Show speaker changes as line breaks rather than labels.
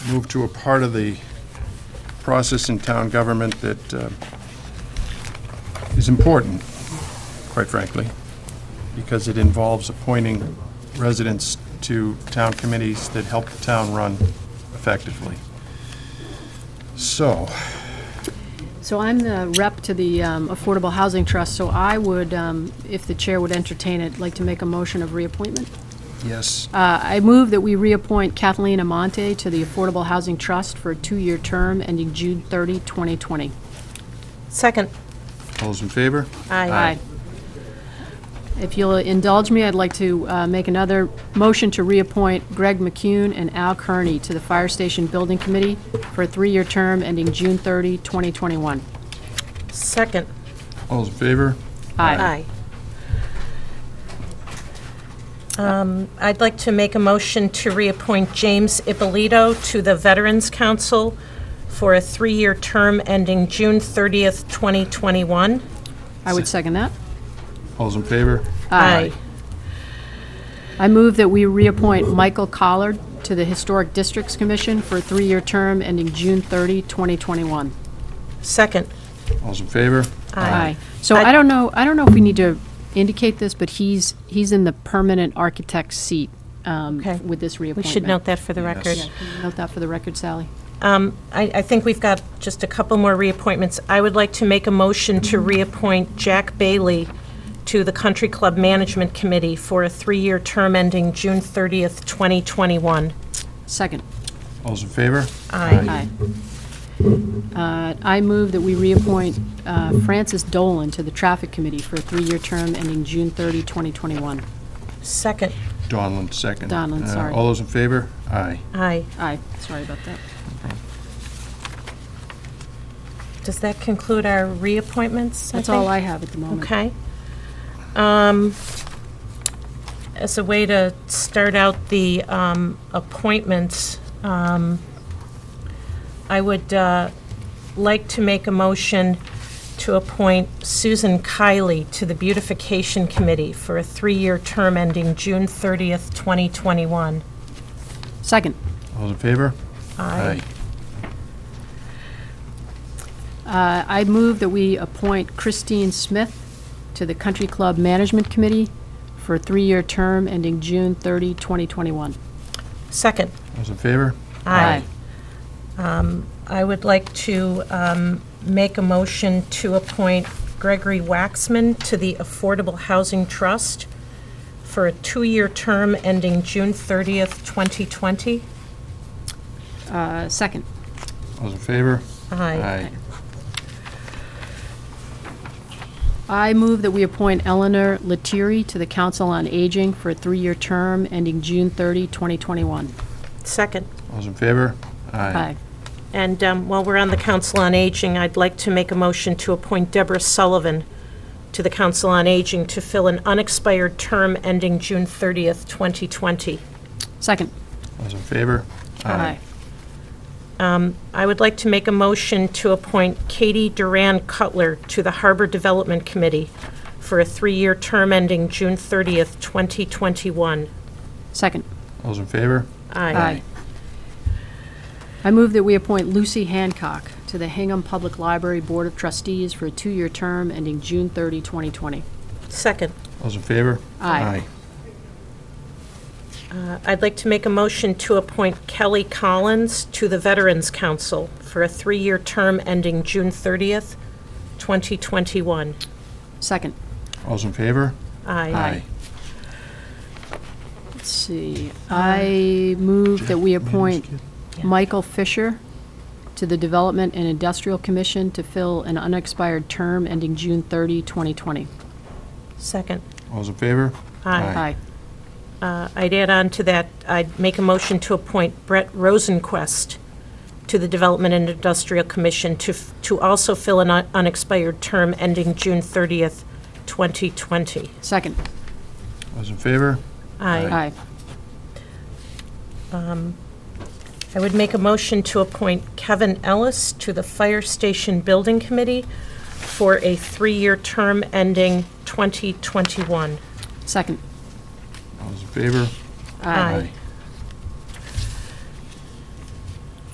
move to a part of the process in town government that uh, is important, quite frankly, because it involves appointing residents to town committees that help the town run effectively. So,
So I'm the rep to the um, Affordable Housing Trust, so I would, um, if the chair would entertain it, like to make a motion of reappointment.
yes,
Uh, I move that we reappoint Kathleen Amonte to the Affordable Housing Trust for a two-year term ending June 30, 2020.
Second.
all those in favor?
Aye.
If you'll indulge me, I'd like to uh, make another motion to reappoint Greg McCune and Al Kearney to the Fire Station Building Committee for a three-year term ending June 30, 2021.
Second.
All those in favor?
Aye. Um, I'd like to make a motion to reappoint James Ippolito to the Veterans Council for a three-year term ending June 30th, 2021.
I would second that.
All those in favor?
Aye.
I move that we reappoint Michael Collard to the Historic Districts Commission for a three-year term ending June 30, 2021.
Second.
All those in favor?
Aye. So I don't know, I don't know if we need to indicate this, but he's, he's in the permanent architect seat um,
Okay.
with this
We
reappointment.
should note that for the record.
Note that for the record, Sally.
I, I think we've got just a couple more reappointments. I would like to make a motion to reappoint Jack Bailey to the Country Club Management Committee for a three-year term ending June 30th, 2021.
Second.
All those in favor?
Aye.
Aye. Uh, I move that we reappoint uh, Francis Dolan to the Traffic Committee for a three-year term ending June 30, 2021.
Second.
Donlin, second.
Donlin,
Uh,
sorry.
All those in favor? Aye.
Aye.
Aye, sorry about that.
Does that conclude our reappointments?
That's
think?
all I have at the moment.
Okay. Um, As a way to start out the um, appointments, um, I would uh, like to make a motion to appoint Susan Kiley to the Beautification Committee for a three-year term ending June 30th, 2021.
Second.
All those in favor? Aye.
Uh, I move that we appoint Christine Smith to the Country Club Management Committee for a three-year term ending June 30, 2021.
Second.
All those in favor?
Aye. I would like to um, make a motion to appoint Gregory Waxman to the Affordable Housing Trust for a two-year term ending June 30th, 2020.
Uh, Second.
All those in favor?
Aye.
I move that we appoint Eleanor Lettieri to the Council on Aging for a three-year term ending June 30, 2021.
Second.
All those in favor?
Aye.
And um, while we're on the Council on Aging, I'd like to make a motion to appoint Deborah Sullivan to the Council on Aging to fill an unexpired term ending June 30th, 2020.
Second.
All those in favor?
I would like to make a motion to appoint Katie Duran Cutler to the Harbor Development Committee for a three-year term ending June 30th, 2021.
Second.
All those in favor?
Aye.
I move that we appoint Lucy Hancock to the Hingham Public Library Board of Trustees for a two-year term ending June 30, 2020.
Second,
All those in favor?
Aye.
uh, I'd like to make a motion to appoint Kelly Collins to the Veterans Council for a three-year term ending June 30th, 2021.
Second.
All those in favor?
Aye.
Let's see, Uh, I move that we appoint Michael Fisher to the Development and Industrial Commission to fill an unexpired term ending June 30, 2020.
Second.
All those in favor?
Aye. Uh, I'd add on to that, I'd make a motion to appoint Brett Rosenquist to the Development and Industrial Commission to, f- to also fill an un- unexpired term ending June 30th, 2020.
Second.
All those in favor?
I,
Aye.
I would make a motion to appoint Kevin Ellis to the Fire Station Building Committee for a three-year term ending 2021.
Second.
All those in favor?
Aye.